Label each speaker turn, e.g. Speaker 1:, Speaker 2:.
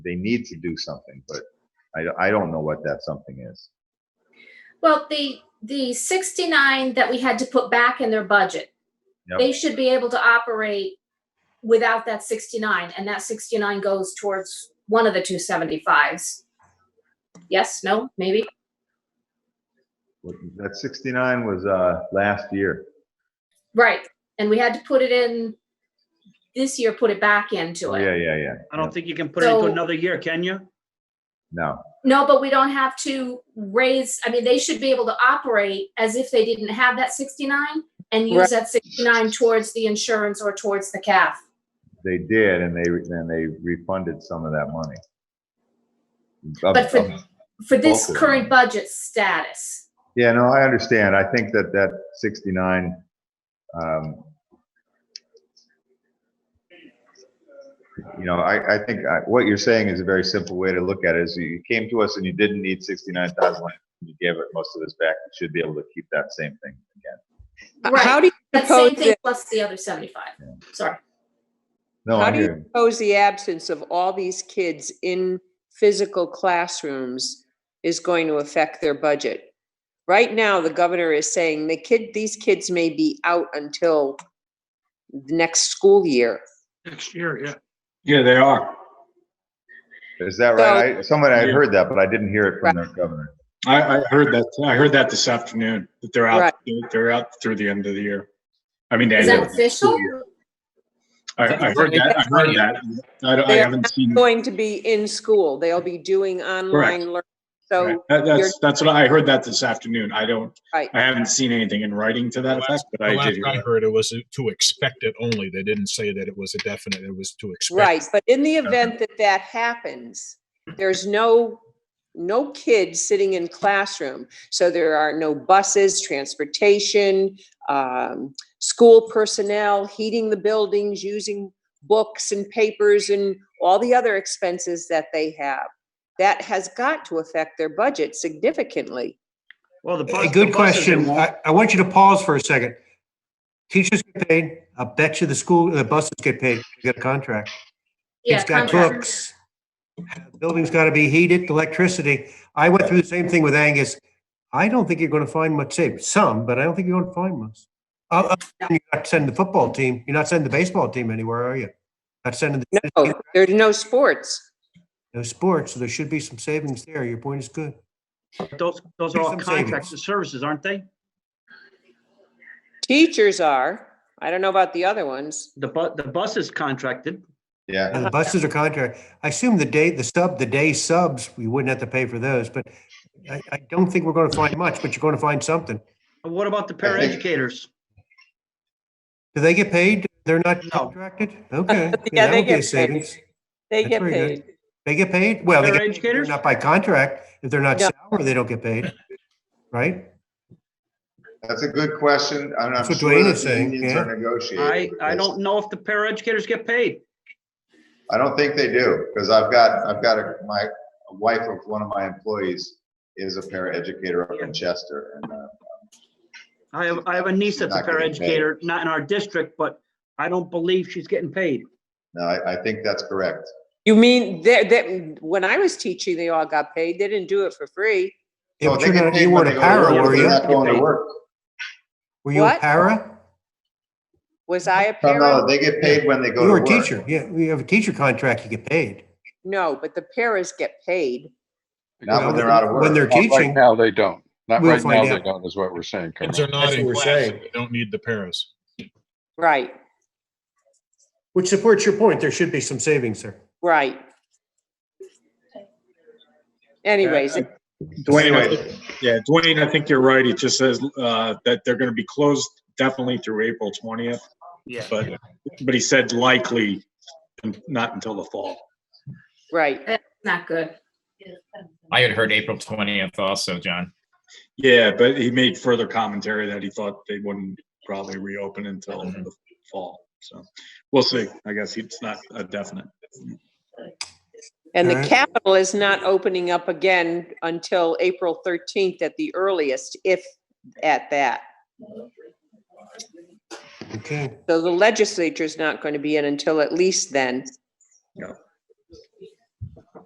Speaker 1: they need to do something, but I, I don't know what that something is.
Speaker 2: Well, the, the 69 that we had to put back in their budget,
Speaker 1: Yep.
Speaker 2: they should be able to operate without that 69, and that 69 goes towards one of the two 75s. Yes, no, maybe?
Speaker 1: What- That sixty-nine was, uh, last year.
Speaker 2: Right. And we had to put it in, this year, put it back into
Speaker 1: Oh,
Speaker 2: it.
Speaker 1: yeah, yeah, yeah.
Speaker 3: I don't think you can put it into
Speaker 2: So-
Speaker 3: another year, can you?
Speaker 1: No,
Speaker 2: No, but we don't have to raise, I mean, they should be able to operate as if they didn't have that 69 and use
Speaker 4: Right.
Speaker 2: that 69 towards the insurance or towards the CAF.
Speaker 1: they did, and they, and they refunded some of that money. Of-
Speaker 2: But for-
Speaker 1: of-
Speaker 2: For this
Speaker 1: Both of them.
Speaker 2: current budget status,
Speaker 1: Yeah, no, I understand. I think that that 69, um, you know, I, I think I- what you're saying is a very simple way to look at it, is you- you came to us and you didn't need 69,000, and you gave it most of this back, you should be able to keep that same thing again.
Speaker 2: Right.
Speaker 4: How do you
Speaker 2: that same
Speaker 4: propose,
Speaker 2: thing
Speaker 4: the-
Speaker 2: plus the other 75. Sorry.
Speaker 1: No,
Speaker 4: how
Speaker 1: I
Speaker 4: do you
Speaker 1: hear, you.
Speaker 4: propose the absence of all these kids in physical classrooms is going to affect their budget? Right now, the governor is saying the kid, these kids may be out until the next school year.
Speaker 3: Next year, yeah.
Speaker 5: Yeah, they are.
Speaker 1: is that right? I- Someone, I heard that, but I didn't hear it from the governor.
Speaker 5: I, I heard that, I heard that this afternoon, that they're out,
Speaker 4: Right.
Speaker 5: they're out through the end of the year. I mean, the
Speaker 2: Is
Speaker 5: end
Speaker 2: that
Speaker 5: of the
Speaker 2: official?
Speaker 5: year. I, I heard that, I heard that. I don't, I
Speaker 4: They're
Speaker 5: haven't seen.
Speaker 4: Going to be in school. They'll be doing online learning.
Speaker 5: Right.
Speaker 4: So,
Speaker 5: That-
Speaker 4: you're-
Speaker 5: That's, that's what, I I heard that this afternoon. I don't,
Speaker 4: right.
Speaker 5: I haven't seen anything in writing to that
Speaker 6: The
Speaker 5: effect, but
Speaker 6: The
Speaker 5: I
Speaker 6: last
Speaker 5: did. hear
Speaker 6: I
Speaker 5: that.
Speaker 6: heard it was to expect it only. They didn't say that it was a definite, it was to expect.
Speaker 4: Right, but in the event that that happens, there's no, no kids sitting in classroom. So there are no buses, transportation, um, school personnel, heating the buildings, using books and papers and all the other expenses that they have. That has got to affect their budget significantly.
Speaker 3: Well, the.
Speaker 7: A
Speaker 3: bus- the
Speaker 7: good
Speaker 3: buses, it
Speaker 7: question.
Speaker 3: won't.
Speaker 7: I, I want you to pause for a second. Teachers get paid. I bet you the school, the buses get paid. You got a contract.
Speaker 2: Yeah,
Speaker 7: It's got
Speaker 2: contract.
Speaker 7: cooks. Building's got to be heated, electricity. I went through the same thing with Angus. I don't think you're going to find much savings. Some, but I don't think you're going to find much. Uh, uh, You're not sending the football team, you're not sending the baseball team anywhere, are you? Not sending the
Speaker 4: No, Oh, there's no sports.
Speaker 7: no sports, so there should be some savings there. Your point is good.
Speaker 3: Those, those are all
Speaker 7: Some
Speaker 3: contracts
Speaker 7: savings.
Speaker 3: and services, aren't they?
Speaker 4: Teachers are, I don't know about the other ones.
Speaker 3: The bu, the bus is contracted.
Speaker 1: Yeah,
Speaker 7: And the buses are contract. I assume the day, the sub, the day subs, we wouldn't have to pay for those, but I, I don't think we're going to find much, but you're going to find something.
Speaker 3: And What about the
Speaker 1: I think-
Speaker 3: paraeducators?
Speaker 7: Do they get paid? They're not
Speaker 3: No.
Speaker 7: contracted? Okay.
Speaker 4: Yeah, they
Speaker 7: that would be a
Speaker 4: get paid.
Speaker 7: savings.
Speaker 4: They
Speaker 7: That's
Speaker 4: get
Speaker 7: very good.
Speaker 4: paid.
Speaker 7: They get paid? Well, they
Speaker 3: They're
Speaker 7: get paid,
Speaker 3: educators?
Speaker 7: but not by contract. If they're not
Speaker 4: No.
Speaker 7: salary, they don't get paid, right?
Speaker 1: that's a good question. I'm not
Speaker 7: That's what
Speaker 1: sure
Speaker 7: Dwayne
Speaker 1: that
Speaker 7: is
Speaker 1: the
Speaker 7: saying,
Speaker 1: unions
Speaker 7: yeah.
Speaker 1: are negotiating.
Speaker 3: I, I
Speaker 1: this.
Speaker 3: don't know if the paraeducators get paid.
Speaker 1: I don't think they do, because I've got, I've got a, my a wife of one of my employees is a paraeducator up in Chester, and, uh,
Speaker 3: I have, I have a niece that's a
Speaker 1: Not getting paid.
Speaker 3: paraeducator, not in our district, but I don't believe she's getting paid.
Speaker 1: no, I, I think that's correct.
Speaker 4: You mean, that, that, when I was teaching, they all got paid. They didn't do it for free.
Speaker 7: Yeah,
Speaker 1: No,
Speaker 7: but
Speaker 1: Oh, they
Speaker 7: you're
Speaker 1: get
Speaker 7: not-
Speaker 1: paid
Speaker 7: You
Speaker 1: when
Speaker 7: weren't
Speaker 1: they
Speaker 7: a
Speaker 1: go to
Speaker 7: para,
Speaker 1: work,
Speaker 7: were
Speaker 1: but they're
Speaker 7: you?
Speaker 1: not going to work.
Speaker 7: Were you a
Speaker 4: What?
Speaker 7: para?
Speaker 4: Was I a
Speaker 1: No, no,
Speaker 4: parent?
Speaker 1: they get paid when they go
Speaker 7: You
Speaker 1: to
Speaker 7: were
Speaker 1: work.
Speaker 7: a teacher. Yeah, you have a teacher contract, you get paid.
Speaker 4: No, but the paras get paid.
Speaker 1: Not when
Speaker 7: Well,
Speaker 1: they're out of work.
Speaker 7: When they're
Speaker 8: Not Right
Speaker 7: teaching,
Speaker 8: now, they don't. Not
Speaker 7: We'll
Speaker 8: right now,
Speaker 7: find
Speaker 8: they
Speaker 7: out.
Speaker 8: don't, is what we're saying.
Speaker 6: Kids
Speaker 8: Carol.
Speaker 6: are not
Speaker 9: That's what
Speaker 6: in
Speaker 9: we're
Speaker 6: class.
Speaker 9: saying.
Speaker 6: They don't need the paras.
Speaker 4: Right,
Speaker 7: which supports your point, there should be some savings there.
Speaker 4: right. Anyways, it-
Speaker 5: Dwayne, I
Speaker 1: Anyway,
Speaker 5: think- yeah, Dwayne, I think you're right. It just says, uh, that they're gonna be closed definitely through April twentieth,
Speaker 3: Yeah.
Speaker 5: but, but he said likely not until the fall.
Speaker 4: right.
Speaker 2: Not good.
Speaker 9: I had heard April twentieth also, John.
Speaker 5: Yeah, but he made further commentary that he thought they wouldn't probably reopen until
Speaker 9: Mhm.
Speaker 5: the fall. So we'll see. I guess it's not a definite.
Speaker 4: And the
Speaker 7: Alright.
Speaker 4: Capitol is not opening up again until April 13th at the earliest, if at that.
Speaker 7: Okay.
Speaker 4: So the legislature's not going to be in until at least then.